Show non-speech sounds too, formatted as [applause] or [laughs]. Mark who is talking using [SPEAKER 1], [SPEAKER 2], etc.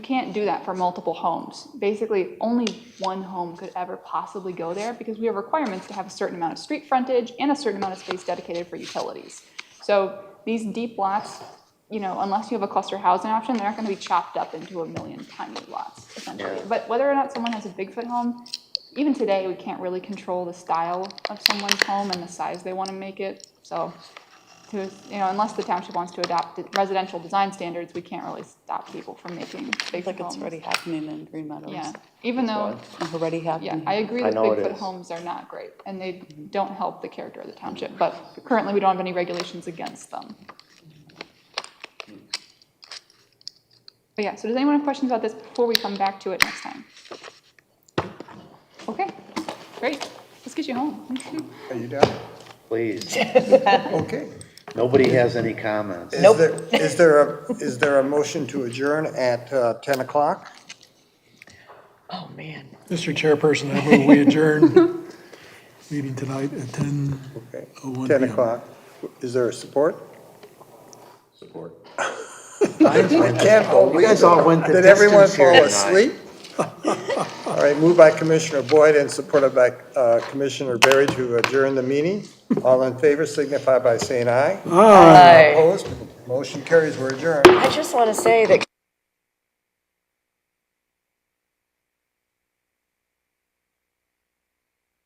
[SPEAKER 1] You can't do that for multiple homes. Basically, only one home could ever possibly go there because we have requirements to have a certain amount of street frontage and a certain amount of space dedicated for utilities. So these deep lots, you know, unless you have a cluster housing option, they're not gonna be chopped up into a million tiny lots essentially.
[SPEAKER 2] Yeah.
[SPEAKER 1] But whether or not someone has a Bigfoot home, even today, we can't really control the style of someone's home and the size they wanna make it. So to, you know, unless the township wants to adopt residential design standards, we can't really stop people from making big homes.
[SPEAKER 3] Like it's already happening in Green Meadows.
[SPEAKER 1] Yeah, even though,
[SPEAKER 3] It's Already
[SPEAKER 1] yeah,
[SPEAKER 3] happening.
[SPEAKER 1] I agree
[SPEAKER 2] I
[SPEAKER 1] that
[SPEAKER 2] know it
[SPEAKER 1] Bigfoot
[SPEAKER 2] is.
[SPEAKER 1] homes are not great, and they
[SPEAKER 3] Mm-hmm.
[SPEAKER 1] don't help the character of the township, but currently, we don't have any regulations against them. But yeah, so does anyone have questions about this before we come back to it next time? Okay, great, let's get you home.
[SPEAKER 4] Are you down?
[SPEAKER 2] Please,
[SPEAKER 4] Okay.
[SPEAKER 2] nobody has any comments.
[SPEAKER 4] Nope. Is there a, is there a motion to adjourn at uh, 10 o'clock?
[SPEAKER 3] Oh, man.
[SPEAKER 5] Mr. Chairperson, I move we adjourn meeting tonight at ten
[SPEAKER 4] Okay.
[SPEAKER 5] oh one
[SPEAKER 4] 10
[SPEAKER 5] PM.
[SPEAKER 4] o'clock. Is there a support? Support. [laughs] I can't believe it.
[SPEAKER 2] all went
[SPEAKER 4] Did everyone fall asleep? [laughs] All right, moved by Commissioner Boyd and supported by uh, Commissioner Berry to adjourn the meeting. All in favor signify by saying aye.
[SPEAKER 5] Aye.
[SPEAKER 4] Opposed? Motion carries. We're adjourned.
[SPEAKER 6] I just want to say that